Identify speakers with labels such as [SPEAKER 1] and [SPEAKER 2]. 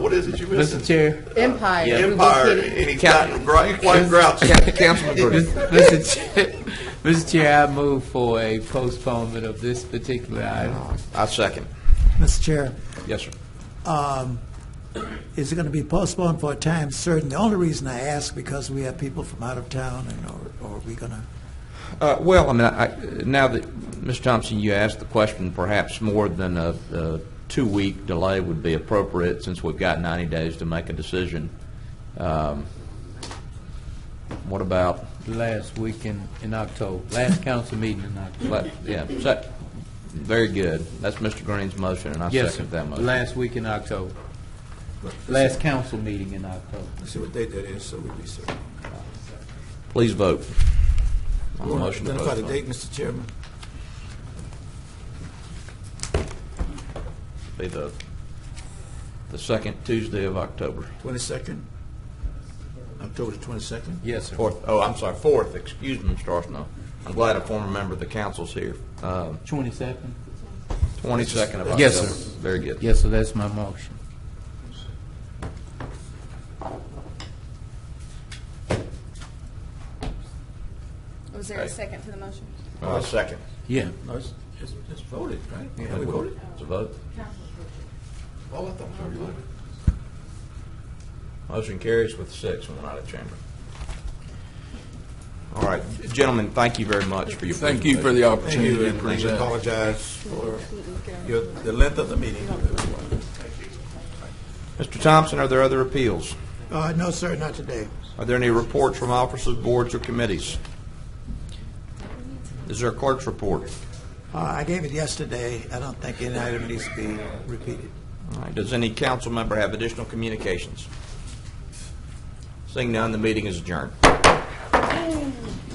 [SPEAKER 1] what is it you
[SPEAKER 2] Mr.
[SPEAKER 1] missing?
[SPEAKER 2] Chair,
[SPEAKER 3] Empire. we just
[SPEAKER 1] Empire,
[SPEAKER 3] hit it.
[SPEAKER 1] and he's gotten gr- quite grouchy.
[SPEAKER 4] Councilman Gordon.
[SPEAKER 2] Mr. Chair, Mr. Chair, I move for a postponement of this particular item.
[SPEAKER 4] I second.
[SPEAKER 5] Mr. Chair,
[SPEAKER 4] Yes, sir.
[SPEAKER 5] is it going to be postponed for a time certain? The only reason I ask, because we have people from out of town, and or- or are we going to,
[SPEAKER 4] Uh, Well, I mean, I- now that, Ms. Thompson, you asked the question, perhaps more than a a two-week delay would be appropriate, since we've got 90 days to make a decision. Um, What about,
[SPEAKER 2] Last week in, in October, last council meeting in October.
[SPEAKER 4] let- yeah, sec- very good. That's Mr. Green's motion, and I
[SPEAKER 2] Yes, sir.
[SPEAKER 4] second that motion.
[SPEAKER 2] Last week in October. Last council meeting in October.
[SPEAKER 1] See what date that is, so we'll be certain.
[SPEAKER 4] Please vote. On the motion to
[SPEAKER 1] Identify the
[SPEAKER 4] postpone.
[SPEAKER 1] date, Mr. Chairman.
[SPEAKER 4] uh, Be the, the second Tuesday of October.
[SPEAKER 1] Twenty-second? October the twenty-second?
[SPEAKER 2] Yes, sir.
[SPEAKER 4] Fourth, oh, I'm sorry, fourth, excuse me, Mr. Arsenault. I'm glad a former member of the council's here. Um,
[SPEAKER 2] Twenty-second?
[SPEAKER 4] 22nd of October.
[SPEAKER 2] Yes, sir.
[SPEAKER 4] Very good.
[SPEAKER 2] Yes, sir, that's my motion.
[SPEAKER 3] Was there a second to the motion?
[SPEAKER 4] Uh, Second.
[SPEAKER 2] Yeah.
[SPEAKER 1] No, it's, it's it's voted, right?
[SPEAKER 2] Yeah.
[SPEAKER 1] Have we voted?
[SPEAKER 4] It's a vote.
[SPEAKER 1] Oh, I thought we already voted.
[SPEAKER 4] Motion carries with six when we're not of chamber. All right, gentlemen, thank you very much for your
[SPEAKER 6] Thank you for the
[SPEAKER 1] Thank
[SPEAKER 6] opportunity
[SPEAKER 1] you,
[SPEAKER 6] to
[SPEAKER 1] and we
[SPEAKER 6] present.
[SPEAKER 1] apologize for your, the length of the meeting.
[SPEAKER 4] Mr. Thompson, are there other appeals?
[SPEAKER 5] Uh, no, sir, not today.
[SPEAKER 4] Are there any reports from officers, boards, or committees? Is there a clerk's report?
[SPEAKER 5] Uh, I gave it yesterday. I don't think any item needs to be repeated.
[SPEAKER 4] All right, does any council member have additional communications? Seeing none, the meeting is adjourned.